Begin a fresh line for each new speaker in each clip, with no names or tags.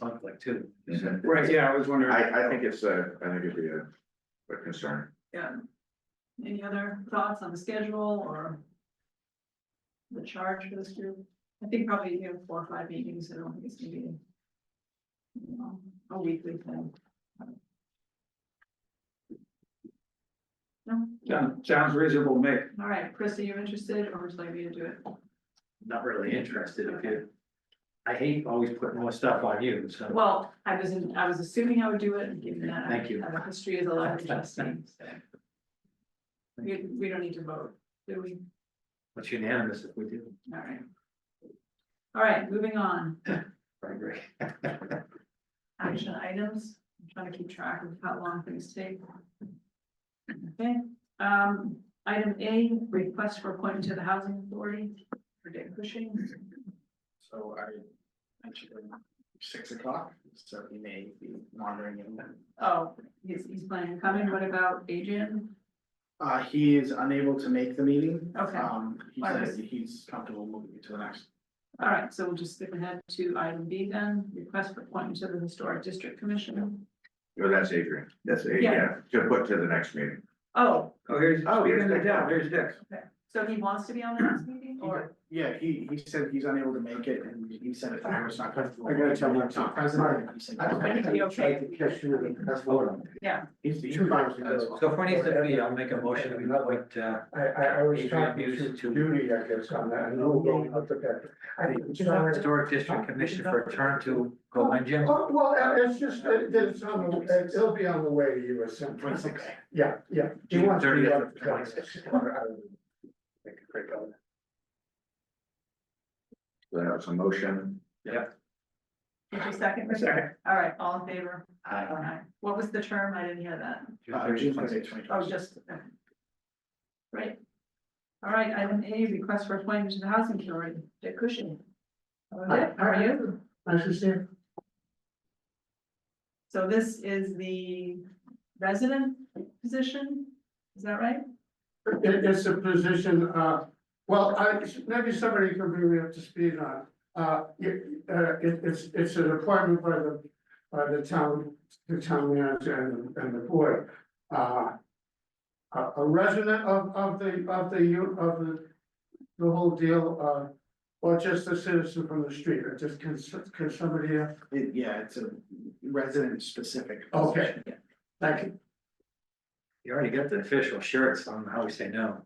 conflict too.
Right, yeah, I was wondering.
I, I think it's a, I think it'd be a, a concern.
Yeah. Any other thoughts on the schedule or? The charge for this group? I think probably you have four or five meetings, I don't think it's gonna be. you know, A weekly thing. No,
Sounds- Sounds reasonable, Mick.
all right, Chris, are you interested or would you like me to do it?
Not really interested if you. I hate always putting more stuff on you, so.
Well, I was, in- I was assuming I would do it and given that. I
Thank you.
have a history as a life trustee, so. We, we don't need to vote, do we?
It's unanimous if we do.
All right. All right, moving on.
I agree.
action items, I'm trying to keep track of how long things take. Okay, um, item A, request for appointment to the housing authority for Dick Cushing.
So I mentioned him six o'clock, so he may be wandering in.
Oh, he's, he's planning on coming, what about Adrian?
Uh, he is unable to make the meeting.
Okay.
Um, he
Why
says
was-
he's comfortable moving it to the next.
All right, so we'll just skip ahead to item B then, request for appointment to the historic district commission.
Well, that's Adrian, that's Adrian, to put to the next meeting.
Oh,
Oh, here's,
Oh,
oh,
here's
here's the
Dick.
down, here's Dick.
so he wants to be on the next meeting or,
Yeah, he, he said he's unable to make it and he said if I was not comfortable.
I gotta tell my-
It's Not present. he said-
Be okay. yeah,
He's, he's fine with it.
So if we need to be, I'll make a motion that we appoint, uh,
I, I, I was trying to
Abuse to-
do duty, I guess, on that, and no going up the back. I think it's not-
Historic District Commission for a term to go on, Jim.
Oh, well, uh, it's just, it- it's on the, it- it'll be on the way to you at some point.
Twenty-six.
Yeah, yeah. He
June
wants to be
30th
on
of
the back.
26.
Make a quick comment.
So that was a motion,
did you second? Richard? All right, all in favor? Aye. What was the term? I didn't hear that.
Uh, June twenty-eighth, twenty
Oh,
twenty.
just. okay. Right. All right, item A, request for appointment to the housing authority, Dick Cushing. Hello, Dick, How are you?
Nice to see you.
So this is the resident position, is that right?
It, it's a position, uh, well, I, maybe somebody can bring me up to speed on. Uh, it, uh, it, it's, it's an appointment by the, by the town, the town manager and, and the board. Uh. A, a resident of, of the, of the, u- of the, the whole deal, uh, or just a citizen from the street, or just can, s- can somebody, uh,
It- Yeah, it's a resident specific.
Okay. like,
You already got the official shirts on how we say no.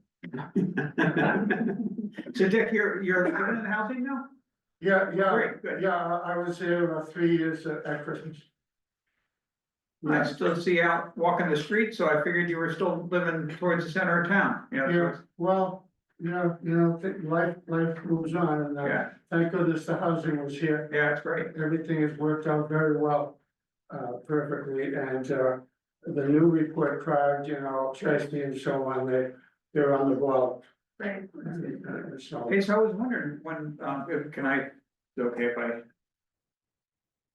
So Dick, you're, you're living in housing now?
yeah, yeah,
Great, good.
yeah, I I was there about three years at at Christmas.
I still see you out walking the street, so I figured you were still living towards the center of town, you know, so
Yeah,
it's-
well, you know, you know, th- life, life moves on and uh,
yeah,
thank goodness the housing was here.
yeah, it's great.
Everything has worked out very well, uh, perfectly and, uh, the new report card, you know, Tracy and so on, they, they're on the ball.
Right.
Uh, So,
Okay, so I was wondering when, um, if- can I, is it okay if I?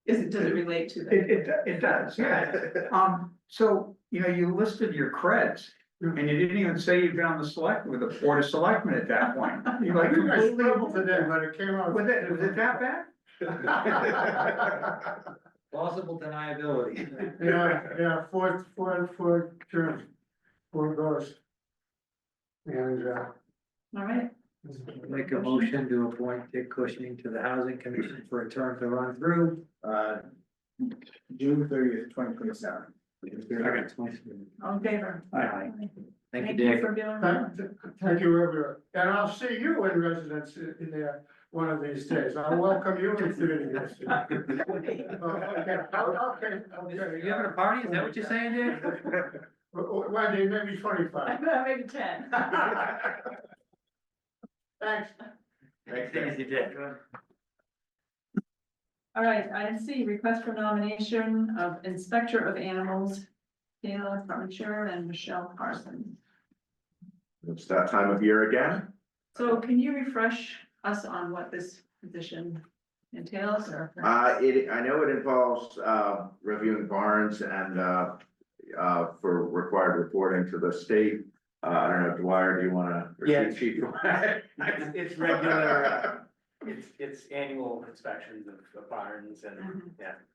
Is it, does it relate to that?
It, it, it does, yeah. Um, so, you know, you listed your creds and you didn't even say you've been on the select with the board of selectmen at that point. You
I
like
think I
completely.
struggled today, but it came out.
Was it, was it that bad?
Plausible deniability.
Yeah, yeah, four, four, four terms, four goals. And, uh,
All right,
Make a motion to appoint Dick Cushing to the Housing Commission for a term to run through.
Uh, June thirtieth, twenty twenty-seven.
all in favor?
Aye. Thank you,
Thank you
Dick.
for being on.
Thank, thank you, everyone, and I'll see you in residence in in there one of these days, I'll welcome you into the. Oh, Okay, oh, okay,
Are
okay.
you having a party? Is that what you're saying, Dick?
W- w- Wendy, maybe twenty-five,
Maybe ten.
thanks.
Thank you, Dick.
All right, item C, request for nomination of inspector of animals, Kayla Parmentier and Michelle Parsons.
it's that time of year again,
So can you refresh us on what this position entails or?
uh, it, I know it involves, uh, reviewing barns and, uh. Uh, for required reporting to the state, uh, I don't know, Dwyer, do you wanna? or
Yeah.
Chief- Chief?
It's regular, uh,
It's, it's annual inspections of of barns and,
Mhm.
yeah,